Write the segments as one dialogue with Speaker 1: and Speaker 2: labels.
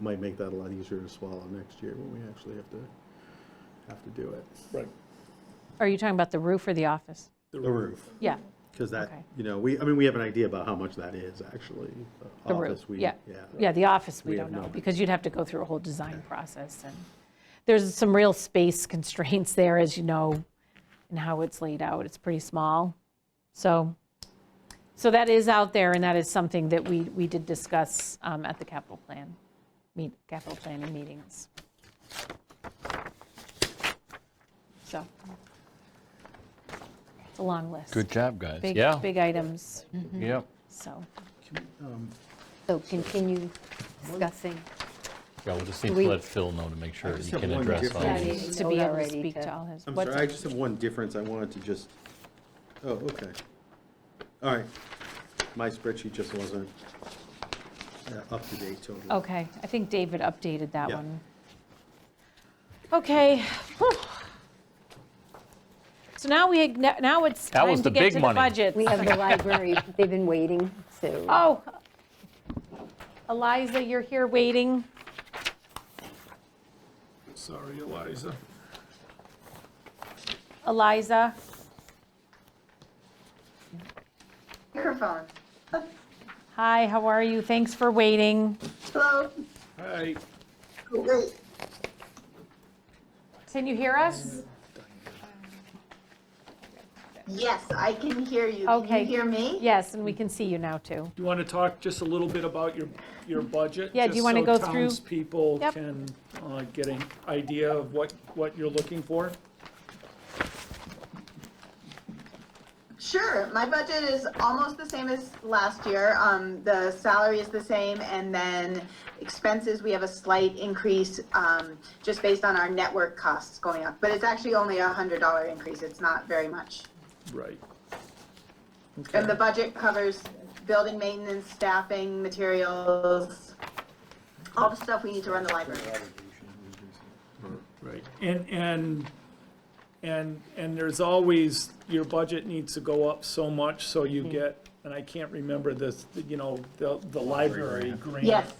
Speaker 1: might make that a lot easier to swallow next year when we actually have to, have to do it.
Speaker 2: Right.
Speaker 3: Are you talking about the roof or the office?
Speaker 1: The roof.
Speaker 3: Yeah,
Speaker 1: Because that,
Speaker 3: Okay.
Speaker 1: you know, we, I mean, we have an idea about how much that is actually. uh,
Speaker 3: the roof,
Speaker 1: Office, we-
Speaker 3: yeah. Yeah, the office, we
Speaker 1: We have
Speaker 3: don't know,
Speaker 1: not.
Speaker 3: because you'd have to go through a whole design process. And there's some real space constraints there, as you know, and how it's laid out. It's pretty small. So, so that is out there, and that is something that we, we did discuss um, at the capital plan, meet, capital planning meetings. So, it's a long list.
Speaker 4: Good job, guys.
Speaker 3: Big,
Speaker 4: Yeah,
Speaker 3: big items,
Speaker 5: mm-hmm.
Speaker 4: yep.
Speaker 3: so.
Speaker 5: So continue discussing.
Speaker 4: Yeah, we'll just need
Speaker 5: We-
Speaker 4: to let Phil know to make sure
Speaker 1: just
Speaker 4: he
Speaker 1: have
Speaker 4: can
Speaker 1: one
Speaker 4: address all
Speaker 1: difference.
Speaker 4: these.
Speaker 5: you
Speaker 3: to be
Speaker 5: know
Speaker 3: able to
Speaker 5: already
Speaker 3: speak
Speaker 5: to-
Speaker 3: to all his.
Speaker 1: I'm
Speaker 3: what's-
Speaker 1: sorry, I just have one difference I wanted to just, oh, okay. All right. My spreadsheet just wasn't uh, up to date totally.
Speaker 3: Okay, I think David updated that
Speaker 1: Yeah.
Speaker 3: one. Okay. whew. So now we, now it's
Speaker 4: That was
Speaker 3: time to
Speaker 4: the
Speaker 3: get
Speaker 4: big
Speaker 3: to the
Speaker 4: money.
Speaker 3: budget.
Speaker 5: We have the library, they've been waiting, so
Speaker 3: Oh, Eliza, you're here waiting.
Speaker 2: Sorry, Eliza.
Speaker 3: Eliza,
Speaker 6: Microphone.
Speaker 3: hi, how are you? Thanks for waiting.
Speaker 6: Hello?
Speaker 2: Hi.
Speaker 6: Wait,
Speaker 3: Can you hear us?
Speaker 6: Yes, I can hear you.
Speaker 3: Okay.
Speaker 6: Can you hear me?
Speaker 3: Yes, and we can see you now, too.
Speaker 2: Do you want to talk just a little bit about your, your budget?
Speaker 3: Yeah, do you
Speaker 2: just
Speaker 3: wanna
Speaker 2: so
Speaker 3: go through-
Speaker 2: Townspeople
Speaker 3: Yep.
Speaker 2: can uh, get an idea of what, what you're looking for?
Speaker 6: Sure, my budget is almost the same as last year. Um, the salary is the same and then expenses, we have a slight increase, um, just based on our network costs going up. But it's actually only a hundred dollar increase. It's not very much.
Speaker 2: Right.
Speaker 6: And the
Speaker 2: Okay.
Speaker 6: budget covers building maintenance, staffing, materials, all the stuff we need to run the library.
Speaker 2: Right. And, and, and, and there's always, your budget needs to go up so much, so you
Speaker 3: Mm-hmm.
Speaker 2: get, and I can't remember this, you know, the, the library grant.
Speaker 6: Yes.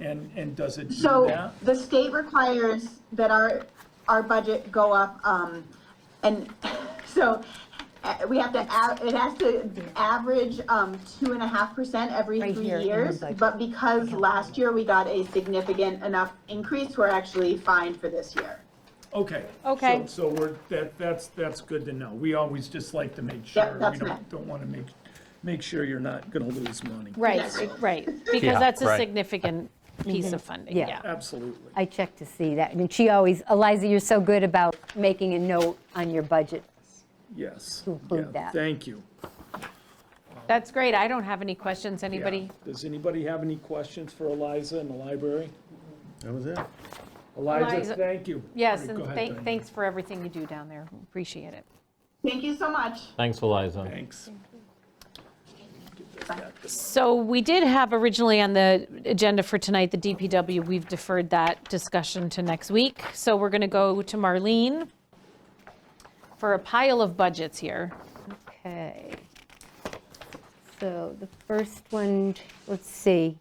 Speaker 2: And, and does it do
Speaker 6: So
Speaker 2: that?
Speaker 6: the state requires that our, our budget go up, um, and so uh, we have to, a- it has to average, um, two and a half percent every
Speaker 5: Right
Speaker 6: three
Speaker 5: here in the
Speaker 6: years.
Speaker 5: budget.
Speaker 6: But because last year we got a significant enough increase, we're actually fine for this year.
Speaker 2: Okay.
Speaker 3: Okay.
Speaker 2: So- So we're, that, that's, that's good to know. We always just like to make sure, we
Speaker 6: that's fine.
Speaker 2: don't, don't want to make, make sure you're not going to lose money.
Speaker 3: Right, right, because
Speaker 4: Yeah,
Speaker 3: that's a
Speaker 4: right.
Speaker 3: significant piece of funding,
Speaker 5: Mm-hmm. Yeah.
Speaker 3: yeah.
Speaker 2: Absolutely.
Speaker 5: I checked to see that. And she always, Eliza, you're so good about making a note on your budget.
Speaker 2: Yes.
Speaker 5: include
Speaker 2: Yeah,
Speaker 5: that.
Speaker 2: Thank you.
Speaker 3: That's great, I don't have any questions,
Speaker 2: Yeah.
Speaker 3: anybody?
Speaker 2: Does anybody have any questions for Eliza in the library?
Speaker 1: That was it.
Speaker 2: Eliza,
Speaker 3: Eliza-
Speaker 2: thank you.
Speaker 3: Yes,
Speaker 2: Go
Speaker 3: and
Speaker 2: ahead, Diane.
Speaker 3: thank- thanks for everything you do down there, appreciate it.
Speaker 6: Thank you so much.
Speaker 4: Thanks, Eliza.
Speaker 2: Thanks.
Speaker 3: So we did have originally on the agenda for tonight, the DPW, we've deferred that discussion to next week. So we're going to go to Marlene for a pile of budgets here.
Speaker 5: Okay. So the first one, let's see.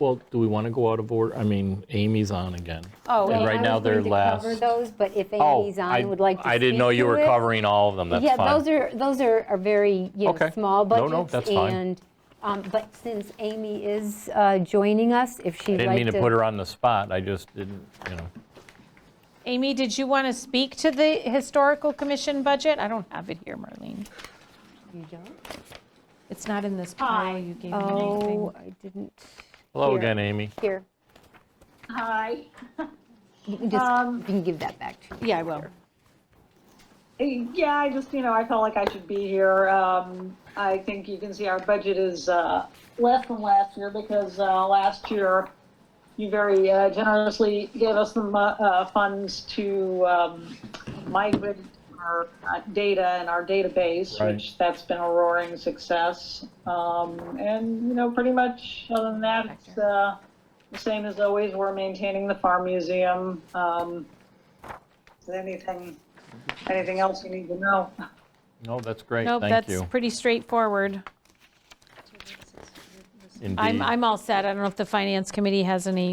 Speaker 4: Well, do we want to go out of order? I mean, Amy's on again.
Speaker 3: Oh,
Speaker 4: And
Speaker 5: Well,
Speaker 4: right
Speaker 5: I
Speaker 4: now
Speaker 5: was
Speaker 4: they're
Speaker 5: going to
Speaker 4: last.
Speaker 5: cover those, but if
Speaker 4: Oh,
Speaker 5: Amy's
Speaker 4: I-
Speaker 5: on, would like to
Speaker 4: I didn't know
Speaker 5: speak
Speaker 4: you
Speaker 5: to
Speaker 4: were
Speaker 5: it.
Speaker 4: covering all of them, that's fine.
Speaker 5: Yeah, those are, those are are very, you know,
Speaker 4: Okay.
Speaker 5: small
Speaker 4: No, no,
Speaker 5: budgets.
Speaker 4: that's fine.
Speaker 5: And, um, but since Amy is uh, joining us, if she'd like to.
Speaker 4: Didn't mean to put her on the spot, I just didn't, you know.
Speaker 3: Amy, did you want to speak to the Historical Commission budget? I don't have it here, Marlene.
Speaker 5: You don't?
Speaker 3: It's not in this pile you gave me. anything.
Speaker 5: Oh, I didn't,
Speaker 4: Hello
Speaker 5: Here.
Speaker 4: again, Amy.
Speaker 5: here.
Speaker 7: Hi.
Speaker 5: You can just,
Speaker 3: Um,
Speaker 5: you can give that back to me.
Speaker 3: Yeah, I will.
Speaker 7: Yeah, I just, you know, I felt like I should be here. Um, I think you can see our budget is, uh, less than last year because, uh, last year you very uh, generously gave us the, mo- uh, funds to, um, migrate our uh, data and our database,
Speaker 4: Right.
Speaker 7: which that's been a roaring success. Um, and, you know, pretty much other than that, it's, uh, the same as always. We're maintaining the farm museum. Um, is there anything Anything else you need to know?
Speaker 4: No, that's great,
Speaker 3: Nope,
Speaker 4: thank you.
Speaker 3: that's pretty straightforward.
Speaker 4: in B.
Speaker 3: I'm, I'm all set. I don't know if the finance committee has any